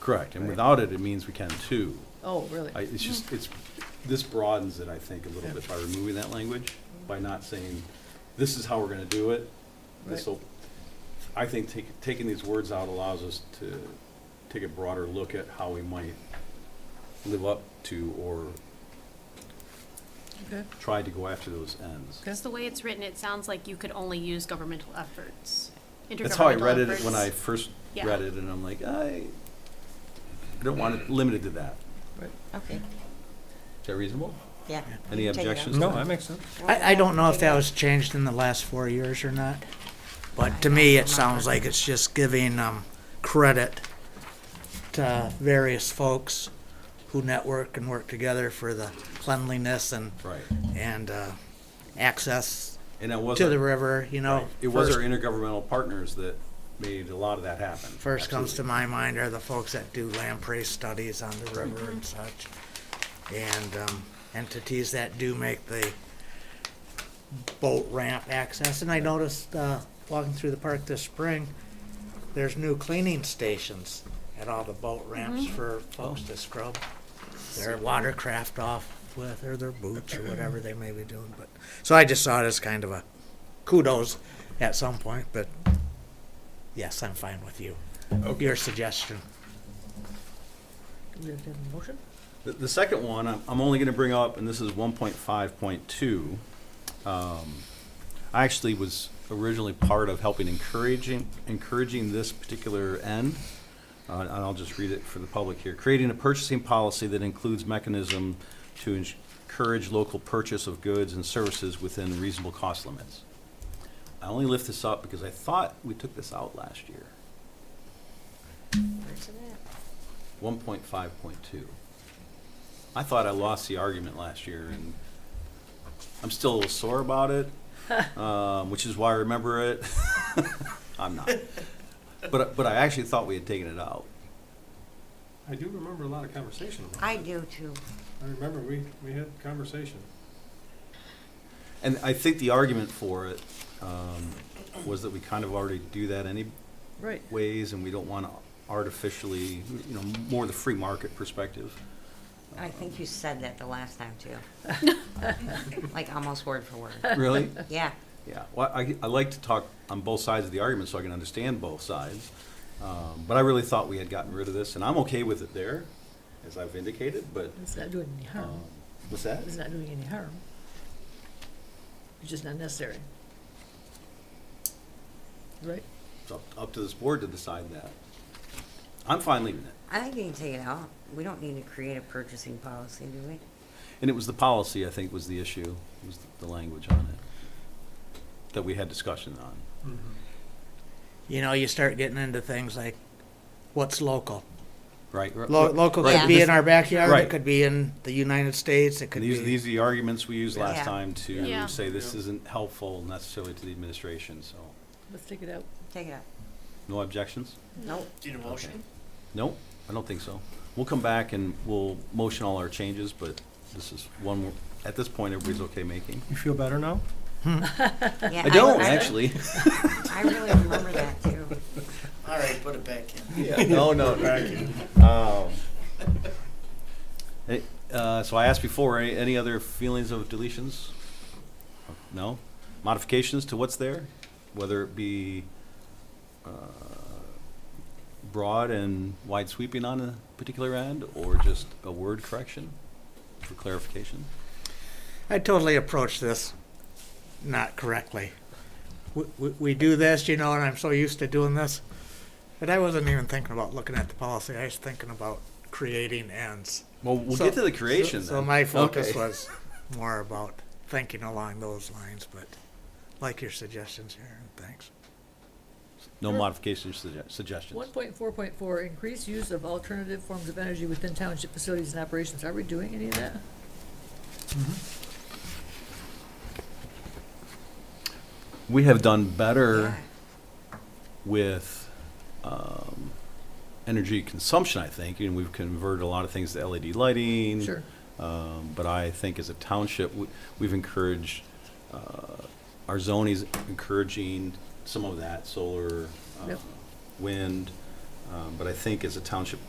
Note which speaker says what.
Speaker 1: Correct, and without it, it means we can too.
Speaker 2: Oh, really?
Speaker 1: I, it's just, it's, this broadens it, I think, a little bit by removing that language, by not saying, this is how we're gonna do it. This'll, I think take, taking these words out allows us to take a broader look at how we might live up to or
Speaker 2: Okay.
Speaker 1: try to go after those ends.
Speaker 2: Okay.
Speaker 3: Because the way it's written, it sounds like you could only use governmental efforts.
Speaker 1: That's how I
Speaker 3: intergovernmental
Speaker 1: read it when
Speaker 3: efforts.
Speaker 1: I first
Speaker 3: Yeah.
Speaker 1: read it, and I'm like, I, I don't want it limited to that.
Speaker 4: Okay,
Speaker 1: Is that reasonable?
Speaker 4: yeah.
Speaker 1: Any
Speaker 4: Take it out.
Speaker 1: objections?
Speaker 5: No,
Speaker 1: to
Speaker 5: that makes sense.
Speaker 6: I, I don't know if that was changed in the last four years or not, but to me, it sounds like it's just giving, um, credit to various folks who network and work together for the cleanliness and,
Speaker 1: Right,
Speaker 6: and, uh, access
Speaker 1: and it was,
Speaker 6: to the
Speaker 1: our-
Speaker 6: river, you know.
Speaker 1: it was our
Speaker 6: first-
Speaker 1: intergovernmental partners that made a lot of that happen.
Speaker 6: First comes to
Speaker 1: Absolutely.
Speaker 6: my mind are the folks that do lamprey studies on the river and such. And um, entities that do make the boat ramp access. And I noticed, uh, walking through the park this spring, there's new cleaning stations at all the boat ramps for folks to scrub their watercraft off with, or their boots, or whatever they may be doing. But, so I just saw it as kind of a kudos at some point, but yes, I'm fine with you your suggestion.
Speaker 4: You have a motion?
Speaker 1: The, the second one, I'm, I'm only gonna bring up, and this is one point five point two. Um, I actually was originally part of helping encouraging, encouraging this particular end. Uh, and I'll just read it for the public here. Creating a purchasing policy that includes mechanism to ens- encourage local purchase of goods and services within reasonable cost limits. I only lift this up because I thought we took this out last year, one point five point two. I thought I lost the argument last year, and I'm still a little sore about it, um, which is why I remember it. I'm not, but but I actually thought we had taken it out.
Speaker 5: I do remember a lot of conversation. about
Speaker 4: I
Speaker 5: it.
Speaker 4: do too.
Speaker 5: I remember we, we had conversation.
Speaker 1: And I think the argument for it um, was that we kind of already do that anyways,
Speaker 2: Right.
Speaker 1: and we don't want to artificially, you know, more the free market perspective.
Speaker 4: I think you said that the last time too. Like almost word for word.
Speaker 1: Really?
Speaker 4: Yeah,
Speaker 1: Yeah, well, I, I like to talk on both sides of the argument so I can understand both sides. Um, but I really thought we had gotten rid of this, and I'm okay with it there, as I've indicated, but,
Speaker 2: It's not doing any harm.
Speaker 1: um, what's that?
Speaker 2: It's not doing any harm. It's just not necessary. Right?
Speaker 1: It's up, up to this board to decide that. I'm fine leaving it.
Speaker 4: I think you can take it out. We don't need to create a purchasing policy, do we?
Speaker 1: And it was the policy, I think, was the issue, was the language on it, that we had discussion on.
Speaker 6: You know, you start getting into things like what's local.
Speaker 1: Right?
Speaker 6: Lo- local
Speaker 4: right,
Speaker 6: could be
Speaker 4: this-
Speaker 6: in our backyard.
Speaker 1: right.
Speaker 6: It could be in the United States. It could
Speaker 1: These,
Speaker 6: be.
Speaker 1: these are the arguments we used last
Speaker 4: Yeah.
Speaker 1: time to
Speaker 3: Yeah.
Speaker 1: say this
Speaker 5: Yeah.
Speaker 1: isn't helpful necessarily to the administration, so.
Speaker 2: Let's take it out.
Speaker 4: Take it out.
Speaker 1: No objections?
Speaker 4: Nope.
Speaker 1: Nope, I don't think so. We'll come back and we'll motion all our changes, but this is one, we're- at this point, everybody's okay making.
Speaker 5: You feel better now?
Speaker 6: Hmm.
Speaker 4: Yeah,
Speaker 1: I don't,
Speaker 4: I-
Speaker 1: actually.
Speaker 4: I really remember that too.
Speaker 7: All right, put it back in.
Speaker 1: No, no, no. Um, uh, So I asked before, any- any other feelings of deletions? No? Modifications to what's there? Whether it be uh, broad and wide sweeping on a particular end, or just a word correction for clarification?
Speaker 6: I totally approached this not correctly. We, we, we do this, you know, and I'm so used to doing this. But I wasn't even thinking about looking at the policy. I was thinking about creating ends.
Speaker 1: Well, we'll
Speaker 6: So-
Speaker 1: get to the creation.
Speaker 6: So, so
Speaker 1: then.
Speaker 6: my focus
Speaker 1: Okay.
Speaker 6: was more about thinking along those lines, but like your suggestions here, thanks.
Speaker 1: no modifications sugge- suggestions.
Speaker 2: One point four point four, increased use of alternative forms of energy within township facilities and operations. Are we doing any of that?
Speaker 1: We have done better
Speaker 4: Yeah.
Speaker 1: with um, energy consumption, I think, and we've converted a lot of things to LED lighting.
Speaker 2: Sure.
Speaker 1: Um, but I think as a township, we, we've encouraged uh, our zone is encouraging some of that solar, uh,
Speaker 2: Yep.
Speaker 1: wind. Um, but I think as a township